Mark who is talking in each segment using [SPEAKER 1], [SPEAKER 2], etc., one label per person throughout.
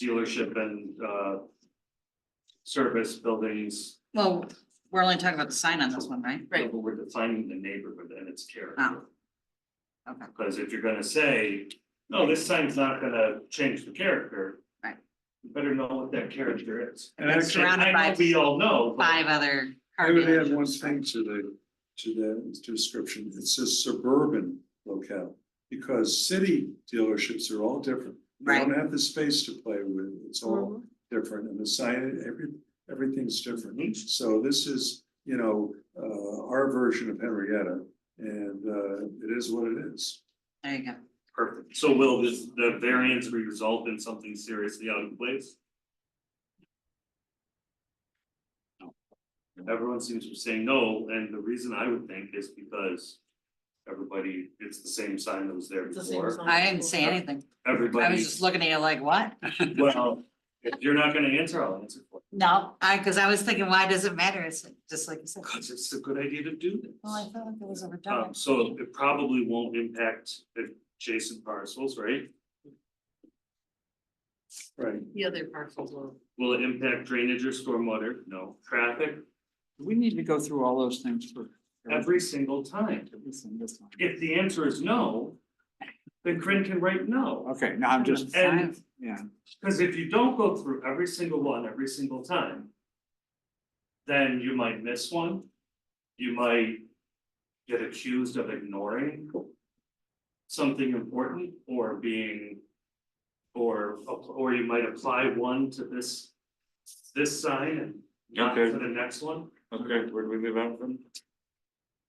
[SPEAKER 1] dealership and, uh, service buildings.
[SPEAKER 2] Well, we're only talking about the sign on this one, right?
[SPEAKER 3] Right.
[SPEAKER 1] But We're defining the neighborhood and its character.
[SPEAKER 2] Oh. Okay.
[SPEAKER 1] Because if you're gonna say, no, this sign's not gonna change the character.
[SPEAKER 2] Right.
[SPEAKER 1] You better know what that character is.
[SPEAKER 4] And
[SPEAKER 1] I-
[SPEAKER 4] actually,
[SPEAKER 2] Surrounded
[SPEAKER 1] I know
[SPEAKER 2] by
[SPEAKER 1] We all know, but
[SPEAKER 2] Five other
[SPEAKER 4] I
[SPEAKER 2] car
[SPEAKER 4] would add one
[SPEAKER 2] dealerships.
[SPEAKER 4] thing to the, to the description, it says suburban locale. Because city dealerships are all different, they
[SPEAKER 2] Right, Mm-hmm.
[SPEAKER 4] don't have the space to play with, it's all different, and the sign, every, everything's different. So this is, you know, uh, our version of Henrietta, and, uh, it is what it is.
[SPEAKER 2] there you go.
[SPEAKER 1] perfect. So will this, the variance result in something seriously out of place? Everyone seems to be saying no, and the reason I would think is because everybody, it's the same sign that was there
[SPEAKER 3] It's the same
[SPEAKER 1] before.
[SPEAKER 3] sign.
[SPEAKER 2] I didn't say anything. I was
[SPEAKER 1] Everybody,
[SPEAKER 2] just looking at you like, what?
[SPEAKER 1] well, if you're not gonna answer, I'll answer for
[SPEAKER 2] No, I, cause I was thinking, why does it matter? It's like- just like you said.
[SPEAKER 1] you, because it's a good idea to do this.
[SPEAKER 2] Well, I felt like it was a
[SPEAKER 1] Um,
[SPEAKER 3] Oh.
[SPEAKER 4] Oh.
[SPEAKER 2] redundant.
[SPEAKER 1] so it probably won't impact adjacent parcels, right?
[SPEAKER 4] Right.
[SPEAKER 3] The other parcels will.
[SPEAKER 1] Will it impact drainage or stormwater? No. Traffic,
[SPEAKER 5] We need to go through all those things for.
[SPEAKER 1] every single time.
[SPEAKER 5] Listen, this one.
[SPEAKER 1] If the answer is no, then Corinne can write no.
[SPEAKER 5] Okay, now I'm just,
[SPEAKER 1] And,
[SPEAKER 5] yeah,
[SPEAKER 1] because if you don't go through every single one, every single time, then you might miss one. You might get accused of ignoring something important or being, or, or you might apply one to this, this sign and not to
[SPEAKER 6] Okay.
[SPEAKER 1] the next one.
[SPEAKER 6] Okay, where do we move on from?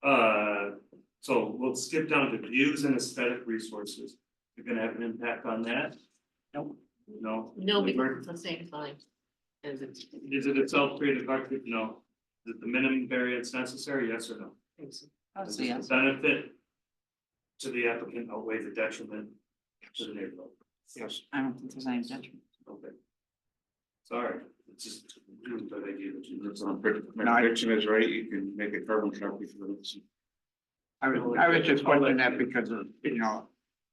[SPEAKER 1] Uh, so we'll skip down to views and aesthetic resources. You're gonna have an impact on that?
[SPEAKER 2] Nope.
[SPEAKER 1] No?
[SPEAKER 3] No,
[SPEAKER 1] Liber-
[SPEAKER 3] because it's the same sign. As it's.
[SPEAKER 1] Is it itself created architect? No. Is it the minimum variance necessary? Yes or no?
[SPEAKER 2] Oh,
[SPEAKER 1] Does
[SPEAKER 2] so
[SPEAKER 1] the
[SPEAKER 2] yes.
[SPEAKER 1] Benefit to the applicant outweigh the detriment to the neighborhood.
[SPEAKER 5] yes, I don't think there's any judgment.
[SPEAKER 1] Okay. Sorry, it's just a really good idea that you.
[SPEAKER 6] That's on, my prediction is right, you can make a carbon copy for this.
[SPEAKER 5] I was, I was just wondering that because of, you know,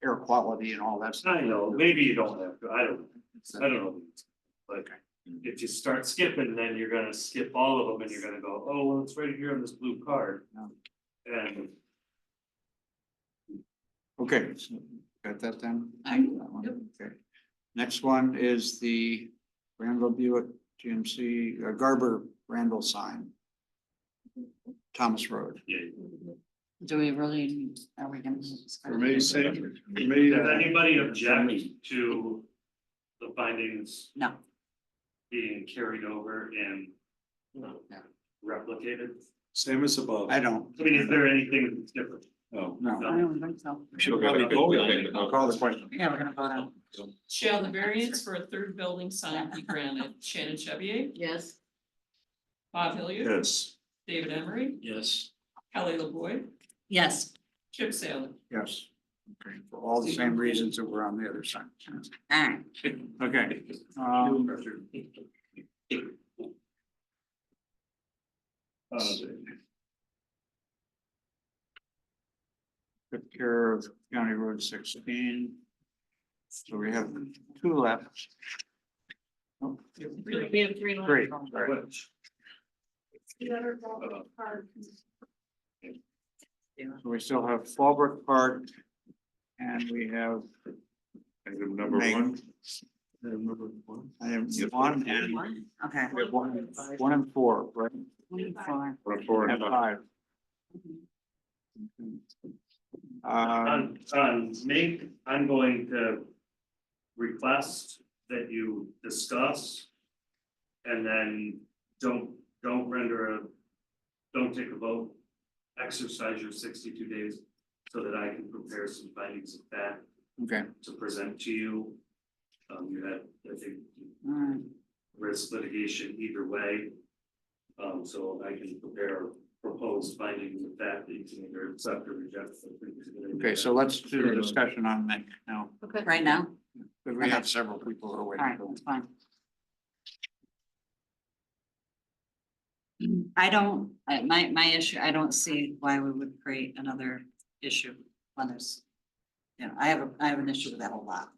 [SPEAKER 5] air quality and all that stuff.
[SPEAKER 1] I know, maybe you don't have to, I don't, I don't know. Like, if you start skipping, then you're gonna skip all of them and you're gonna go, oh, well, it's right here on this blue card.
[SPEAKER 5] No.
[SPEAKER 1] And
[SPEAKER 5] Okay, so got that then?
[SPEAKER 2] I-
[SPEAKER 5] That one, Okay. Next one is the Randall Buick GMC uh, Garber Randall sign. Thomas Road.
[SPEAKER 2] Do we really, are we gonna?
[SPEAKER 4] For me, same, for me,
[SPEAKER 1] does
[SPEAKER 4] that-
[SPEAKER 1] anybody object to the findings
[SPEAKER 2] No,
[SPEAKER 1] being carried over and
[SPEAKER 3] No.
[SPEAKER 1] replicated?
[SPEAKER 4] same as above.
[SPEAKER 5] I don't.
[SPEAKER 1] I mean, is there anything that's different?
[SPEAKER 4] No.
[SPEAKER 5] No,
[SPEAKER 2] I don't think so.
[SPEAKER 6] Should have got a
[SPEAKER 4] Probably
[SPEAKER 6] good-
[SPEAKER 5] I'll call the question.
[SPEAKER 2] Yeah, we're gonna vote on.
[SPEAKER 7] Shall the variance for a third building sign be granted? Shannon Chevy,
[SPEAKER 3] Yes,
[SPEAKER 7] Bob Hilliard,
[SPEAKER 4] Yes.
[SPEAKER 7] David Emery,
[SPEAKER 1] Yes.
[SPEAKER 7] Kelly LaVoy,
[SPEAKER 2] Yes,
[SPEAKER 7] Chip Salem.
[SPEAKER 5] Yes. Okay, for all the same reasons that were on the other side.
[SPEAKER 2] all right.
[SPEAKER 5] Okay. um, Took care of County Road sixteen. So we have two left. Oh,
[SPEAKER 3] really, we have three. lines.
[SPEAKER 5] Three,
[SPEAKER 1] Uh,
[SPEAKER 5] sorry. So we still have Fallbrook Park. And we have
[SPEAKER 6] Item number one.
[SPEAKER 5] uh, Number one. Item one and
[SPEAKER 2] Okay.
[SPEAKER 5] we have one, one and four, right?
[SPEAKER 6] One, four, and
[SPEAKER 5] And
[SPEAKER 6] five.
[SPEAKER 5] five. Uh,
[SPEAKER 1] On, on make, Um, I'm going to request that you discuss. And then don't, don't render a, don't take a vote. Exercise your sixty-two days so that I can prepare some findings of fact
[SPEAKER 5] okay,
[SPEAKER 1] to present to you. Um, you had, I think,
[SPEAKER 2] All right.
[SPEAKER 1] risk litigation either way. Um, so I can prepare proposed findings of fact that you can either accept or reject. I think it's a good idea.
[SPEAKER 5] okay, so let's do the discussion on that now,
[SPEAKER 3] Okay.
[SPEAKER 2] Right now?
[SPEAKER 5] because we have several people who are
[SPEAKER 2] All right,
[SPEAKER 5] waiting.
[SPEAKER 2] that's fine. I don't, I- my, my issue, I don't see why we would create another issue on this. You know, I have, a I have an issue with that a lot.